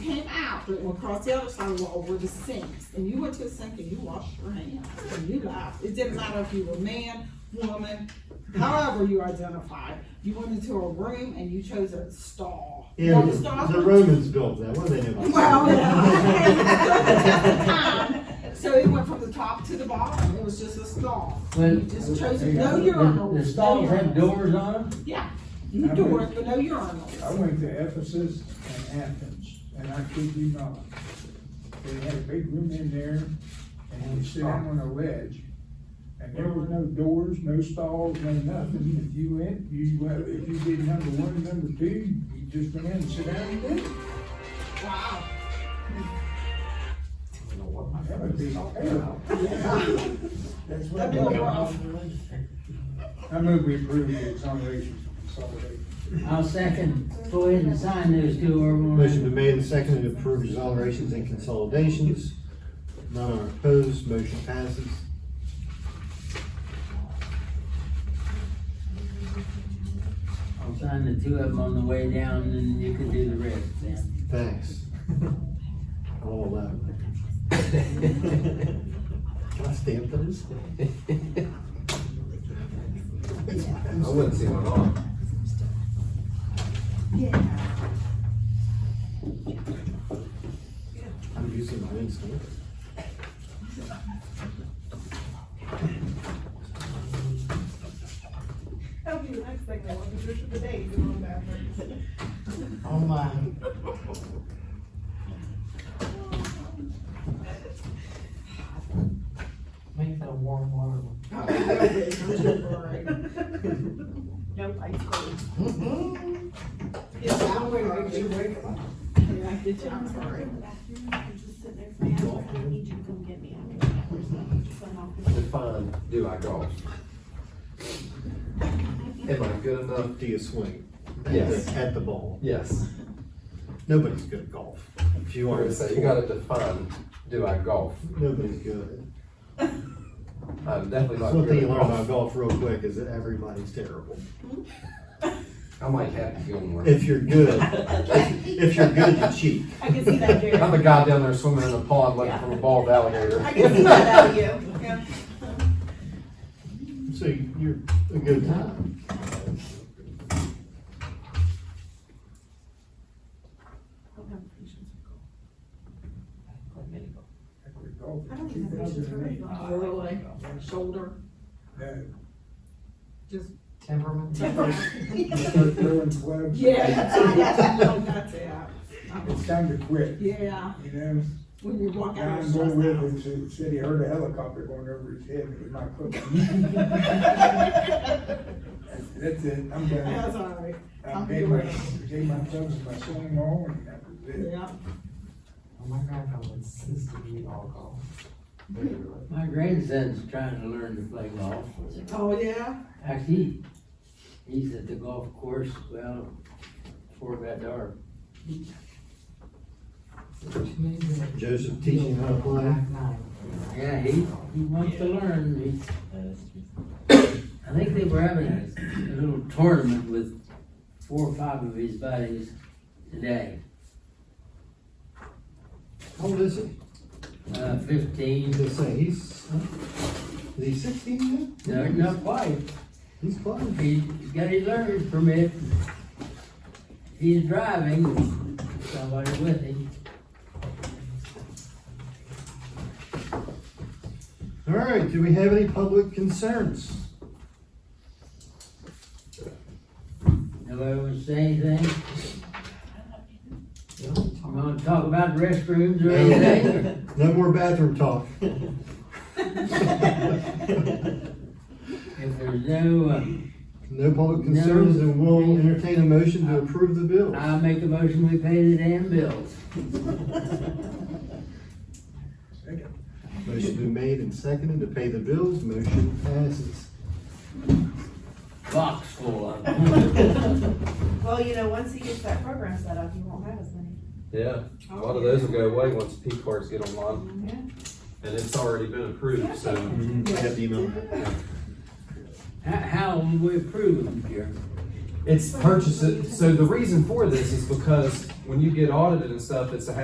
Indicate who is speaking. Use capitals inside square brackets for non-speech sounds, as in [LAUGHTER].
Speaker 1: after and across the other side were over the sinks. And you went to the sink and you washed your hands and you laughed. It didn't matter if you were man, woman, however you identified. You went into a room and you chose a stall. Well,
Speaker 2: And
Speaker 1: the stalls
Speaker 2: the
Speaker 1: were-
Speaker 2: Romans built that, what do they know?
Speaker 1: [LAUGHS]
Speaker 2: about
Speaker 1: Well,
Speaker 2: that?
Speaker 1: yeah. [LAUGHS] So it went from the top to the bottom. It was just a stall.
Speaker 3: But-
Speaker 1: You just chose no urinals.
Speaker 3: The
Speaker 1: no
Speaker 3: stalls had
Speaker 1: urinals.
Speaker 3: doors on them?
Speaker 1: Yeah, no doors, but no urinals.
Speaker 4: I went to Ephesus and Athens, and I kid you not. They had a big room in there, and you sit down on a ledge, and there were no doors, no stalls, no nothing. If you went, you, well, if you did number one, number two, you just went in and sit down and did it.
Speaker 1: Wow.
Speaker 4: That would be
Speaker 1: [LAUGHS]
Speaker 4: terrible. That's what
Speaker 1: That'd
Speaker 4: I'm
Speaker 1: be a
Speaker 4: talking
Speaker 1: rough.
Speaker 4: I move we approve the exoneration from consolidation.
Speaker 3: I'll second, go ahead and sign those two, or we'll.
Speaker 2: Motion been made and seconded to approve exonerations and consolidations. None are opposed, motion passes.
Speaker 3: I'll sign the two of them on the way down, and you can do the rest then.
Speaker 2: Thanks. [LAUGHS] All allowed. [LAUGHS] Can I stand for this? I wouldn't say it on. I'm using my instinct.
Speaker 1: That'll be the next thing I want to do for the day, is going backwards.
Speaker 2: Oh my.
Speaker 5: Make that a warm water one.
Speaker 1: No ice cream. Mm-hmm. Yeah, I'm gonna make you wake up. Yeah, I did you, I'm sorry.
Speaker 6: I need you to come get me after the hours, so I'm off the-
Speaker 7: Define, do I golf? Am I good enough?
Speaker 2: Do you swing? At
Speaker 7: Yes.
Speaker 2: the- At the ball.
Speaker 7: Yes.
Speaker 2: Nobody's good at golf. If you
Speaker 7: You
Speaker 2: are.
Speaker 7: want to say, you gotta define, do I golf?
Speaker 2: Nobody's good.
Speaker 7: I'm definitely
Speaker 2: That's
Speaker 7: not
Speaker 2: one thing
Speaker 7: good
Speaker 2: you
Speaker 7: at
Speaker 2: learn about
Speaker 7: golf.
Speaker 2: golf real quick is that everybody's terrible.
Speaker 7: I might have to go more.
Speaker 2: If you're good, if you're good, you cheat.
Speaker 1: I can see that, Jerry.
Speaker 7: I'm the guy down there swimming in a pond looking for a bald alligator.
Speaker 1: I can see that out of you, yeah.
Speaker 2: So you're a good time.
Speaker 4: Heck, we golfed
Speaker 6: I
Speaker 4: in
Speaker 6: don't even have patience for
Speaker 4: 2008.
Speaker 6: it.
Speaker 1: Really, shoulder,
Speaker 4: No,
Speaker 1: just.
Speaker 5: Temperament.
Speaker 1: [LAUGHS]
Speaker 4: start throwing clubs.
Speaker 1: Yeah. That's it.
Speaker 4: It's time to quit,
Speaker 1: [LAUGHS] Yeah,
Speaker 4: you know?
Speaker 1: when you walk out.
Speaker 4: Guy
Speaker 1: it's
Speaker 4: I'm going
Speaker 1: just- [LAUGHS]
Speaker 4: with him said- said he heard a helicopter going over his head, and he might quit.
Speaker 1: [LAUGHS]
Speaker 4: That's it, I'm
Speaker 1: That's
Speaker 4: done.
Speaker 1: all right,
Speaker 4: I paid my, paid my clubs and my swimming all, and that was it.
Speaker 1: yeah.
Speaker 5: Oh my grandfather insisted we all go.
Speaker 3: My grandson's trying to learn to play golf.
Speaker 1: Oh, yeah?
Speaker 3: Actually, he's at the golf course, well, before it got dark.
Speaker 2: Joseph teaching how to play.
Speaker 3: Yeah, he, he wants to learn. He- I think they were having a, a little tournament with four or five of his buddies today.
Speaker 2: How old is he?
Speaker 3: Uh,
Speaker 2: I
Speaker 3: fifteen,
Speaker 2: was gonna say, he's, is he sixteen
Speaker 3: no,
Speaker 2: yet?
Speaker 3: not quite.
Speaker 2: He's playing.
Speaker 3: He- He's got his learner's permit. He's driving, somebody with him.
Speaker 2: All right, do we have any public concerns?
Speaker 3: Nobody wants to say anything? You wanna talk about restrooms or anything? [LAUGHS]
Speaker 2: No more bathroom talk.
Speaker 1: [LAUGHS]
Speaker 3: If there's no, uh,
Speaker 2: No public concerns, and we'll entertain a motion to approve the bill.
Speaker 3: I make a motion, we pay the damn bills.
Speaker 2: Motion been made and seconded to pay the bills, motion passes.
Speaker 3: [LAUGHS] Box full of them.
Speaker 6: Well, you know, once he gets that program set up, you won't have as many.
Speaker 7: [LAUGHS] Yeah, a lot of those will go away once P cards get online. And it's already been approved, so
Speaker 2: I got the email.
Speaker 3: How, how will we approve them, Jeremy?
Speaker 7: it's purchased. So the reason for this is because when you get audited and stuff, it's a